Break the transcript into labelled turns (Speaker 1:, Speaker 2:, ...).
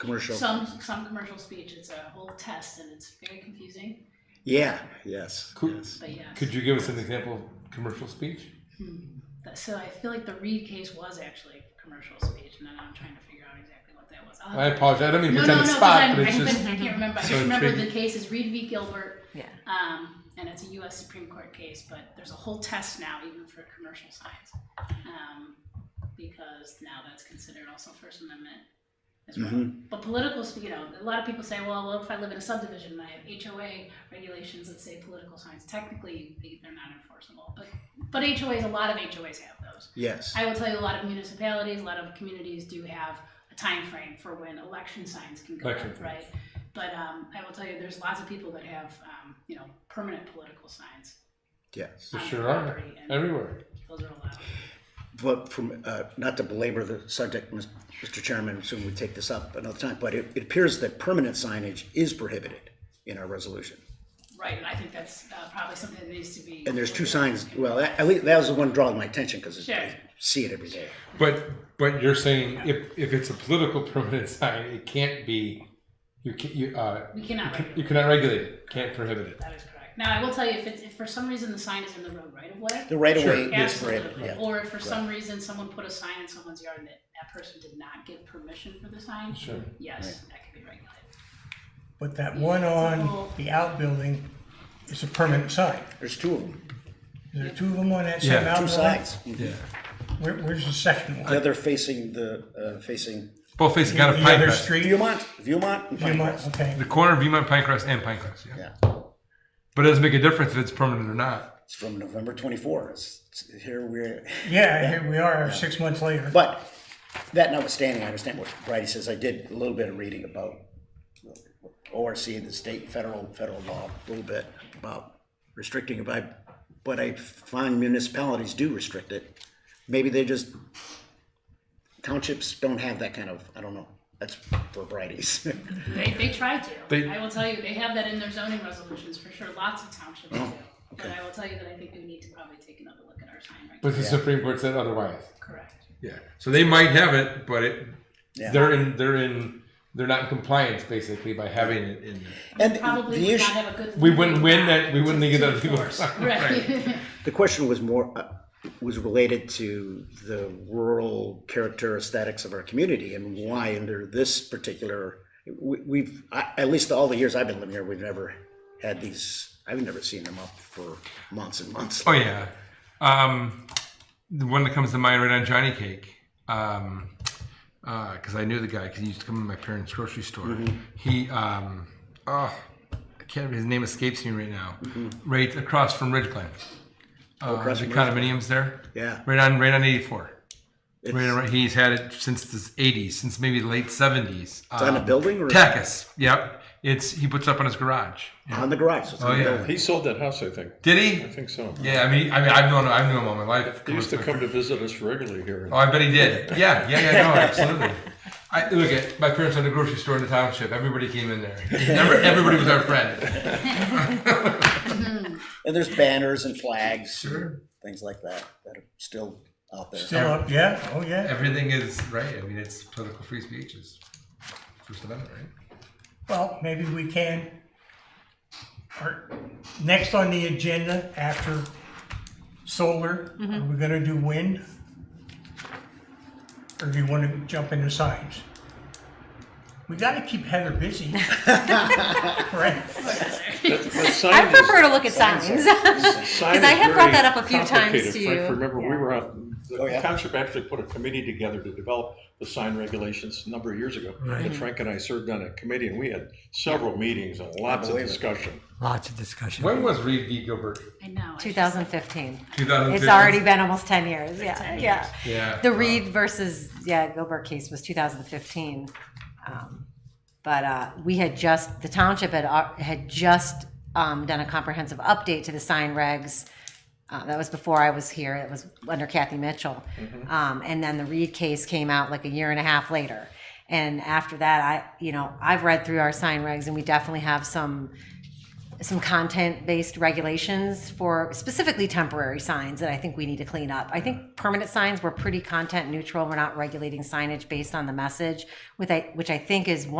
Speaker 1: commercial.
Speaker 2: Some, some commercial speech, it's a whole test and it's very confusing,
Speaker 1: Yeah, yes,
Speaker 3: Cool.
Speaker 1: yes.
Speaker 2: but yes.
Speaker 3: Could you give us an example of commercial speech?
Speaker 2: That- So I feel like Hmm. the Reed case was actually commercial speech and then I'm trying to figure out exactly what that was. I'll have
Speaker 3: I
Speaker 2: to-
Speaker 3: apologize. I don't mean to
Speaker 2: Uh, No, no, no,
Speaker 3: pretend to
Speaker 2: because
Speaker 3: spot,
Speaker 2: I'm-
Speaker 3: but
Speaker 2: I
Speaker 3: it's just
Speaker 2: couldn't- I can't remember. I
Speaker 3: so
Speaker 2: just remember the
Speaker 3: intriguing.
Speaker 2: case is Reed v. Gilbert.
Speaker 4: Yeah.
Speaker 2: Um, and it's a US Supreme Court case, but there's a whole test now even for commercial signs. Um, because now that's considered also First Amendment as well.
Speaker 3: Mm-hmm.
Speaker 2: But political, sp- you know, a lot of people say, well, well, if I live in a subdivision and I have HOA regulations that say political signs, technically they- they're not enforceable. But, but HOAs, a lot of HOAs have those.
Speaker 1: Yes.
Speaker 2: I will tell you, a lot of municipalities, a lot of communities do have a time frame for when election signs can go
Speaker 3: Election
Speaker 2: up,
Speaker 3: signs.
Speaker 2: right? But um, I will tell you, there's lots of people that have, um, you know, permanent political signs.
Speaker 1: Yes.
Speaker 3: There
Speaker 2: on
Speaker 3: sure
Speaker 2: their
Speaker 3: are.
Speaker 2: property, and
Speaker 3: everywhere.
Speaker 2: Those are allowed.
Speaker 1: But from, uh, not to belabor the subject, Mis- Mr. Chairman, soon we take this up another time, but it, it appears that permanent signage is prohibited in our resolution.
Speaker 2: Right, and I think that's uh, probably something that needs to be.
Speaker 1: And there's two signs, well, that- at least, that was the one drawing my attention, because
Speaker 2: Sure.
Speaker 1: I see it every day.
Speaker 3: But but you're saying if, if it's a political permanent sign, it can't be. You can you uh
Speaker 2: We cannot regulate.
Speaker 3: you cannot regulate it. Can't prohibit it.
Speaker 2: That is correct. Now, I will tell you, if it's, if for some reason the sign is in the road right of way.
Speaker 1: The right of way is prohibited,
Speaker 2: Absolutely.
Speaker 1: yeah.
Speaker 2: Or if for some reason someone put a sign in someone's yard and that, that person did not give permission for the sign.
Speaker 3: Sure.
Speaker 2: Yes, that could be regulated.
Speaker 5: But that one on the outbuilding is a permanent sign.
Speaker 1: There's two of them,
Speaker 5: Is there two of them on that
Speaker 3: Yeah,
Speaker 5: same
Speaker 3: two
Speaker 1: two
Speaker 5: outbuilding?
Speaker 1: sides.
Speaker 3: Yeah.
Speaker 5: Where, where's the second
Speaker 1: The
Speaker 5: one?
Speaker 1: other facing the, uh, facing
Speaker 3: Both facing out of
Speaker 5: The
Speaker 3: Pinecrest.
Speaker 5: other street?
Speaker 1: Viewmont, Viewmont and Pinecrest.
Speaker 5: Viewmont, okay.
Speaker 3: The corner of Viewmont Pinecrest and Pinecrest. Yeah.
Speaker 1: Yeah,
Speaker 3: But it doesn't make a difference if it's permanent or not.
Speaker 1: it's from November twenty-four, it's, it's here we're,
Speaker 5: Yeah, here we are, six months later.
Speaker 1: But that notwithstanding, I understand what Brady says. I did a little bit of reading about ORC and the state and federal, federal law, a little bit about restricting it by, but I find municipalities do restrict it. Maybe they just, townships don't have that kind of, I don't know. That's for Brady's.
Speaker 2: They, they try to.
Speaker 3: They-
Speaker 2: I will tell you, they have that in their zoning resolutions for sure. Lots of townships
Speaker 3: Oh,
Speaker 2: do. But I will tell you that I think we need to probably take another look at our sign
Speaker 3: But
Speaker 2: regulations.
Speaker 3: the Supreme Court said otherwise.
Speaker 2: Correct.
Speaker 3: Yeah. So they might have it, but it
Speaker 1: Yeah.
Speaker 3: they're in they're in they're not in compliance basically by having it in.
Speaker 1: And
Speaker 2: Probably
Speaker 1: the
Speaker 2: would not
Speaker 1: issue,
Speaker 2: have a good.
Speaker 3: We wouldn't win
Speaker 2: legal
Speaker 3: that. We wouldn't
Speaker 2: to-
Speaker 3: get
Speaker 2: to
Speaker 3: that legal.
Speaker 2: enforce. Right.
Speaker 1: the question was more, uh, was related to the rural character aesthetics of our community and why under this particular, we- we've, I- at least all the years I've been living here, we've never had these, I've never seen them up for months and months.
Speaker 3: Oh yeah, um, the one that comes to mind right on Johnny Cake, because I knew the guy because he used to come to my parents' grocery store.
Speaker 1: Mm-hmm.
Speaker 3: He, um, oh, I can't. His name escapes me right now. Right across from Ridgeland, uh,
Speaker 1: Mm-hmm. Oh, across
Speaker 3: the
Speaker 1: from
Speaker 3: condominiums there.
Speaker 1: Yeah.
Speaker 3: Right on, right on eighty four.
Speaker 1: It's
Speaker 3: Right, on- right, he's had it since the '80s, since maybe the late '70s. It's
Speaker 1: on a building or-
Speaker 3: Takis. Yep, it's he puts up on his garage.
Speaker 1: on the garage. so it's
Speaker 3: Oh
Speaker 1: on the
Speaker 3: yeah,
Speaker 1: building.
Speaker 6: He sold that house, I think.
Speaker 3: did
Speaker 6: I
Speaker 3: he?
Speaker 6: think so.
Speaker 3: Yeah, I mean, I mean, I've known, I've known him all my life.
Speaker 6: He used to come to visit us regularly here.
Speaker 3: Oh, I bet he did. Yeah, yeah, yeah, no, absolutely. I, look at my parents owned a grocery store in the township. Everybody came in there. Every- everybody was our friend.
Speaker 1: And there's banners and flags, things like that, that are still out there.
Speaker 5: Still up, yeah, oh yeah.
Speaker 3: Everything is right. I mean, it's political free speech is First Amendment, right?
Speaker 5: Well, maybe we can. Our- Next on the agenda after solar, are we gonna do wind? Or do you wanna jump into signs? We gotta keep Heather busy. Right?
Speaker 6: But sign
Speaker 4: I
Speaker 6: is-
Speaker 4: prefer to look at signs.
Speaker 6: sign
Speaker 4: because I
Speaker 6: is
Speaker 4: have brought
Speaker 6: very
Speaker 4: that up a few times
Speaker 6: complicated.
Speaker 4: to
Speaker 6: Frank,
Speaker 4: you.
Speaker 6: Remember, we were out,
Speaker 1: Oh,
Speaker 6: the
Speaker 1: yeah.
Speaker 6: township actually put a committee together to develop the sign regulations a number of years ago. And Frank and I served on a committee and we had several meetings and lots of
Speaker 1: believe it.
Speaker 6: discussion.
Speaker 7: Lots of discussion.
Speaker 3: When was Reed v. Gilbert?
Speaker 2: I know. I should-
Speaker 4: 2015.
Speaker 3: 2015?
Speaker 4: It's already been almost 10 years. Yeah, yeah.
Speaker 3: Yeah.
Speaker 4: The
Speaker 3: wow.
Speaker 4: Reed versus yeah Gilbert case was 2015, um, but uh, we had just the township had uh, had just um, done a comprehensive update to the sign regs. Uh, that was before I was here. It was under Kathy Mitchell,
Speaker 3: Mm-hmm.
Speaker 4: um, and then the Reed case came out like a year and a half later. And after that, I you know I've read through our sign regs, and we definitely have some some content-based regulations for specifically temporary signs that I think we need to clean up. I think permanent signs were pretty content neutral. We're not regulating signage based on the message, with I, which I think is one.